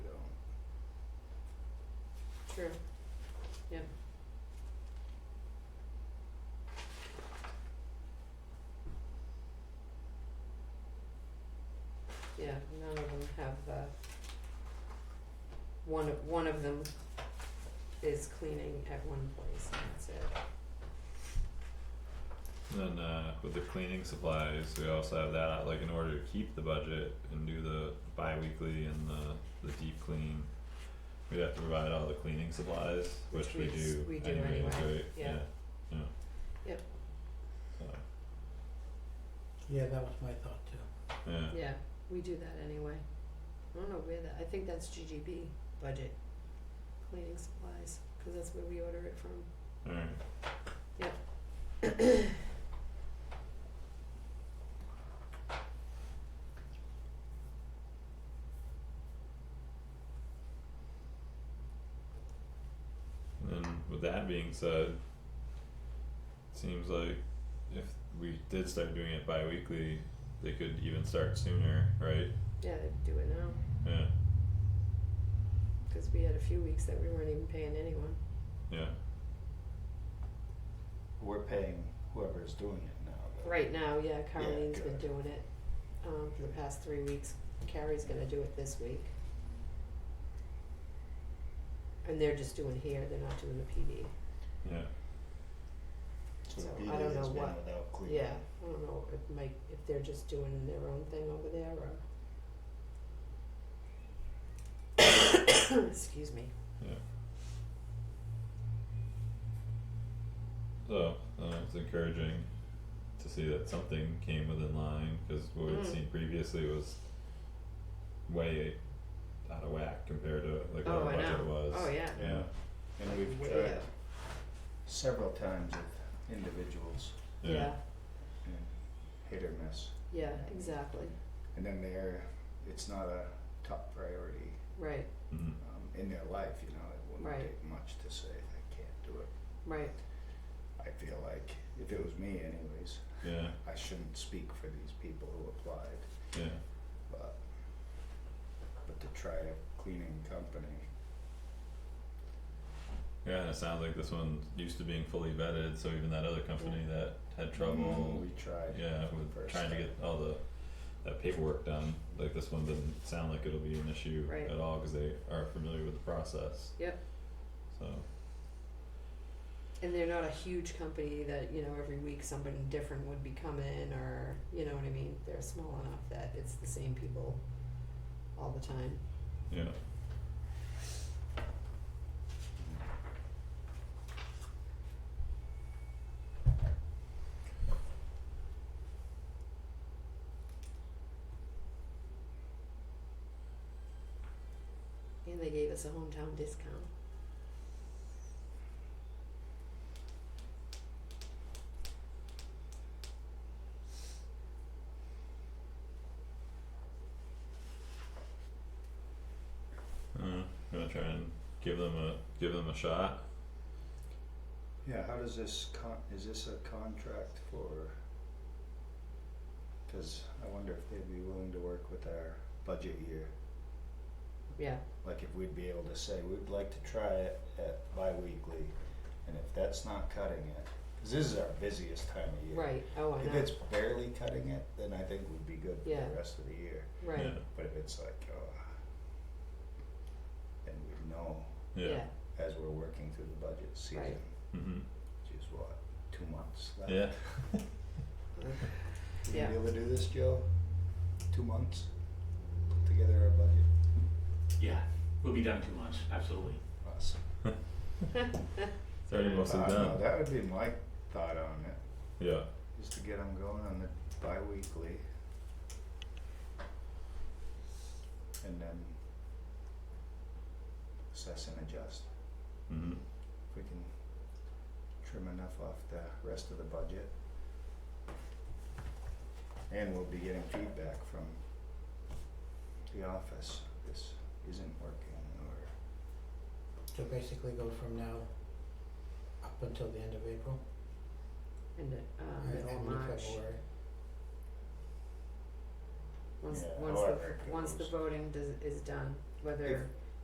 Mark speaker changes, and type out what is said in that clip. Speaker 1: true. Yeah. Yeah, none of them have the, one of, one of them is cleaning at one place and that's it.
Speaker 2: And then uh with the cleaning supplies, we also have that uh, like in order to keep the budget and do the bi-weekly and the the deep clean. We'd have to provide all the cleaning supplies,
Speaker 1: Which
Speaker 2: which
Speaker 1: we
Speaker 2: we
Speaker 1: s-
Speaker 2: do
Speaker 1: we do
Speaker 2: anyway,
Speaker 1: anyway,
Speaker 2: right?
Speaker 1: yeah.
Speaker 2: Yeah, yeah.
Speaker 1: Yep.
Speaker 2: So,
Speaker 3: Yeah, that was my thought too.
Speaker 2: yeah,
Speaker 1: Yeah, we do that anyway. I don't know where that, I think that's GGB budget, cleaning supplies, cause that's where we order it from.
Speaker 2: alright. And with that being said, seems like if we did start doing it bi-weekly, they could even start sooner, right?
Speaker 1: Yeah, they do it now,
Speaker 2: Yeah,
Speaker 1: cause we had a few weeks that we weren't even paying anyone.
Speaker 2: yeah,
Speaker 4: We're paying whoever's doing it now. though.
Speaker 1: Right now, yeah, Caroline's been
Speaker 4: good.
Speaker 1: doing it, um, for the past three weeks. Carrie's gonna do it this week. And they're just doing here, they're not doing the PD.
Speaker 2: yeah,
Speaker 4: So
Speaker 1: So
Speaker 4: PD
Speaker 1: I don't
Speaker 4: has
Speaker 1: know
Speaker 4: been
Speaker 1: what-
Speaker 4: without cleaning.
Speaker 1: Yeah, I don't know if Mike, if they're just doing their own thing over there or. Excuse me.
Speaker 2: so, uh, it's encouraging to see that something came within line, cause what we'd
Speaker 1: Mm.
Speaker 2: seen previously was way out of whack compared to like what
Speaker 1: Oh,
Speaker 2: our
Speaker 1: I
Speaker 2: budget
Speaker 1: know.
Speaker 2: was.
Speaker 1: Oh, yeah.
Speaker 2: Yeah,
Speaker 4: And we've
Speaker 1: Way
Speaker 4: tried
Speaker 1: up.
Speaker 4: several times with individuals
Speaker 2: yeah,
Speaker 1: Yeah,
Speaker 4: and hit or miss.
Speaker 1: yeah, exactly,
Speaker 4: And then they're, it's not a top priority
Speaker 1: right,
Speaker 2: mhm,
Speaker 4: um, in their life, you know, it wouldn't
Speaker 1: Right.
Speaker 4: take much to say, I can't do it.
Speaker 1: right,
Speaker 4: I feel like if it was me anyways,
Speaker 2: yeah,
Speaker 4: I shouldn't speak for these people who applied,
Speaker 2: yeah,
Speaker 4: but but to try a cleaning company,
Speaker 2: yeah, and it sounds like this one's used to being fully vetted, so even that other company
Speaker 1: Hmm.
Speaker 2: that had trouble
Speaker 4: Mm-hmm. we tried.
Speaker 2: Yeah, with
Speaker 4: Hmm. first
Speaker 2: trying to
Speaker 4: time.
Speaker 2: get all the, that paperwork done, like this one doesn't sound like it'll be an issue
Speaker 1: Right.
Speaker 2: at all, cause they are familiar with the process.
Speaker 1: Yep.
Speaker 2: So,
Speaker 1: and they're not a huge company that, you know, every week somebody different would be coming or, you know what I mean? They're small enough that it's the same people all the time.
Speaker 2: yeah,
Speaker 1: And they gave us a hometown discount.
Speaker 2: uh, gonna try and give them a, give them a shot.
Speaker 4: Yeah, how does this con, is this a contract for? Cause I wonder if they'd be willing to work with our budget year,
Speaker 1: Yeah,
Speaker 4: like if we'd be able to say, we'd like to try it at bi-weekly, and if that's not cutting it, cause this is our busiest time of year.
Speaker 1: right, oh, I
Speaker 4: If
Speaker 1: know,
Speaker 4: it's barely cutting it, then I think we'd be good for
Speaker 1: Yeah.
Speaker 4: the rest of the year,
Speaker 1: right,
Speaker 4: but if it's like, oh. Then we'd know
Speaker 2: Yeah, yeah,
Speaker 1: yeah,
Speaker 4: as we're working through the budget season,
Speaker 2: mhm,
Speaker 4: which is what, two months left?
Speaker 2: yeah,
Speaker 4: You
Speaker 1: Yeah.
Speaker 4: gonna be able to do this, Joe? Two months? Put together our budget?
Speaker 5: Yeah, we'll be done two months, absolutely.
Speaker 4: Awesome.
Speaker 2: it's already mostly
Speaker 4: Uh, no,
Speaker 2: done,
Speaker 4: That would be my thought on it,
Speaker 2: yeah,
Speaker 4: is to get them going on the bi-weekly. And then assess and adjust.
Speaker 2: mhm,
Speaker 4: If we can trim enough off the rest of the budget. And we'll be getting feedback from the office, this isn't working or
Speaker 3: So basically go from now up until the end of April,
Speaker 1: and,
Speaker 3: or
Speaker 1: uh,
Speaker 3: end
Speaker 1: middle of
Speaker 3: of
Speaker 1: March,
Speaker 3: February.
Speaker 1: once,
Speaker 4: Yeah,
Speaker 1: once the,
Speaker 4: however it
Speaker 1: once the
Speaker 4: goes.
Speaker 1: voting does, is done, whether,